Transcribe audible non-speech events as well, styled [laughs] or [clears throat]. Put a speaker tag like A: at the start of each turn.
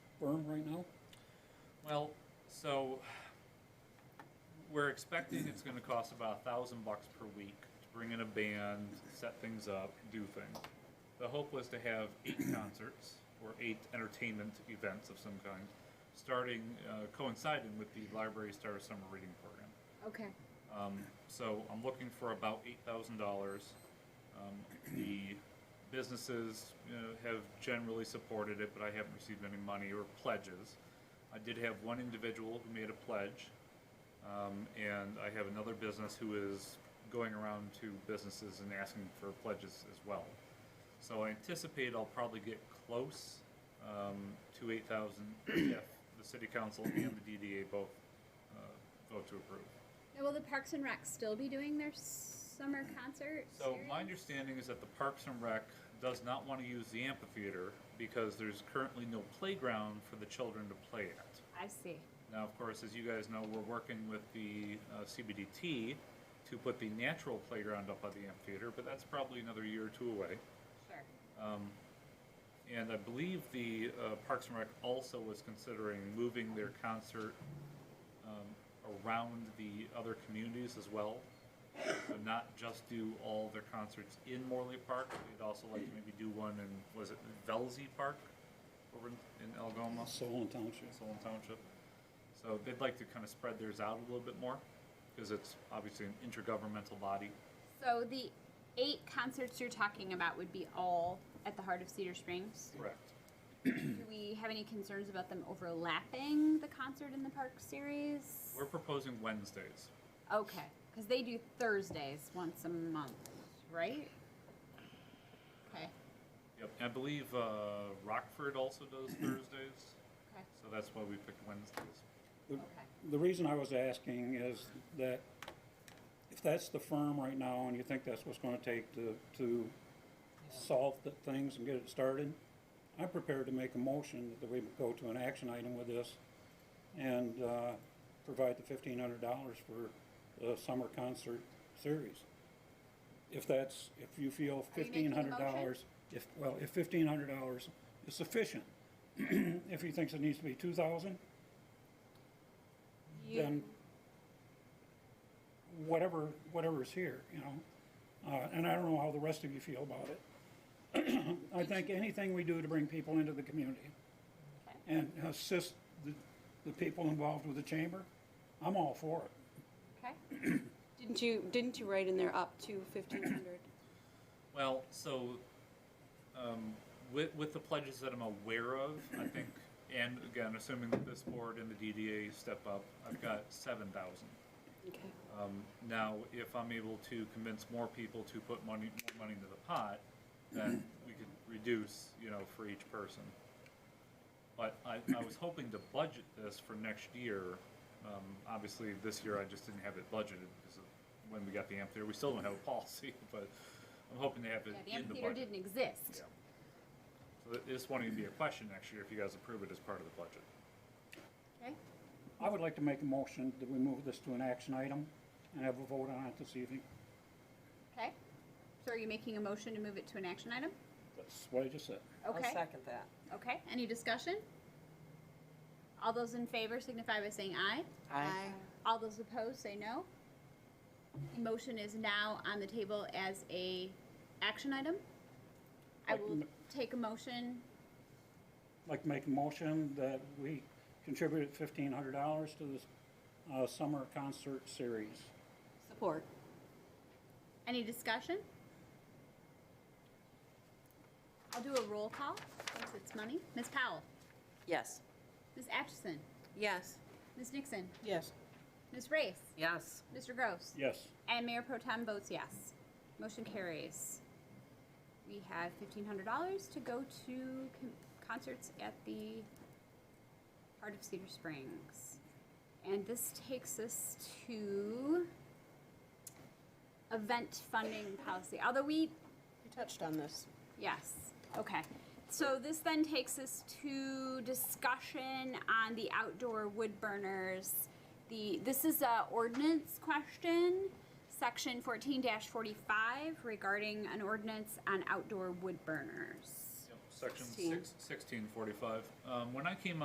A: berm right now?
B: Well, so we're expecting it's gonna cost about a thousand bucks per week to bring in a band, set things up, do things. The hope was to have eight [coughs] concerts or eight entertainment events of some kind, starting, uh, coinciding with the Library Star Summer Reading Program.
C: Okay,
B: Um, so I'm looking for about eight thousand dollars. Um, the businesses you know, have generally supported it, but I haven't received any money or pledges. I did have one individual who made a pledge, um, and I have another business who is going around to businesses and asking for pledges as well. So I anticipate I'll probably get close um, to eight thousand if the city council and the DDA both uh, vote to approve.
C: now will the Parks and Rec still be doing their summer concert?
B: So
C: series?
B: my understanding is that the Parks and Rec does not want to use the amphitheater because there's currently no playground for the children to play at.
C: I see.
B: Now, of course, as you guys know, we're working with the uh, CBDT to put the natural playground up by the amphitheater, but that's probably another year or two away.
C: Sure.
B: Um, and I believe the uh, Parks and Rec also was considering moving their concert um, around the other communities as well. So not just do all their concerts in Morley Park, they'd also like to maybe do one in, was it Velzy Park over in in Algoma,
A: Solon Township.
B: Solon Township? So they'd like to kind of spread theirs out a little bit more, because it's obviously an intergovernmental body.
C: So the eight concerts you're talking about would be all at the heart of
B: [clears throat]
C: Cedar Springs?
B: Correct.
C: Do we have any concerns about them overlapping the concert in the park series?
B: We're proposing Wednesdays.
C: Okay, because they do Thursdays once a month, right? Okay,
B: Yep, and I believe uh, Rockford also does Thursdays,
C: okay,
B: so that's why we picked Wednesdays.
A: The-
C: okay.
A: The reason I was asking is that if that's the firm right now and you think that's what's gonna take to, to solve the things and get it started, I'm prepared to make a motion that we go to an action item with this and, uh, provide the fifteen hundred dollars for the summer concert series. If that's, if you feel
C: Are you making
A: fifteen
C: a
A: hundred
C: motion?
A: dollars, if, well, if fifteen hundred dollars is sufficient, [clears throat] if he thinks it needs to be two thousand, then
C: You,
A: whatever, whatever's here, you know? Uh, and I don't know how the rest of you feel about it. I think anything we do to bring people into the community
C: Okay.
A: and assist the, the people involved with the chamber, I'm all for it.
C: okay,
D: Didn't you, didn't you write in there up to fifteen hundred?
B: Well, so um, with, with the pledges that I'm aware of, I think, and again, assuming that this board and the DDA step up, I've got seven thousand.
D: Okay.
B: Um, now, if I'm able to convince more people to put money, more money into the pot, then we could reduce, you know, for each person. But I, I was hoping to budget this for next year. Um, obviously, this year I just didn't have it budgeted because of when we got the amphitheater. We still don't have a policy, [laughs] but I'm hoping to have it
C: yeah, the
B: in the
C: amphitheater
B: budget.
C: didn't exist.
B: Yeah. So th- this won't even be a question next year if you guys approve it as part of the budget.
C: Okay,
A: I would like to make a motion that we move this to an action item and have a vote on it this evening.
C: okay. So are you making a motion to move it to an action item?
A: That's what I just said.
C: Okay,
E: second that.
C: okay. Any discussion? All those in favor signify by saying aye. All those opposed say no. The motion is now on the table as a action item. I
A: Like
C: will
A: m-
C: take a motion.
A: I'd Like to make a motion that we contribute fifteen hundred dollars to this, uh, summer concert series.
D: Support.
C: Any discussion? I'll do a roll call since it's money. Ms. Powell,
E: Yes.
C: Ms. Atchison,
D: Yes.
C: Ms. Nixon,
E: Yes.
C: Ms. Race,
E: Yes.
C: Mr. Gross.
A: Yes.
C: And Mayor Pro Tem votes yes. Motion carries. We have fifteen hundred dollars to go to con- concerts at the Heart of Cedar Springs. And this takes us to event funding policy, although we,
D: You touched on this.
C: yes, okay. So this then takes us to discussion on the outdoor wood burners. The, this is a ordinance question, section fourteen forty-five regarding an ordinance on outdoor wood burners.
B: Yep, Section
D: Sixteen.
B: six, sixteen forty-five. Um, when I came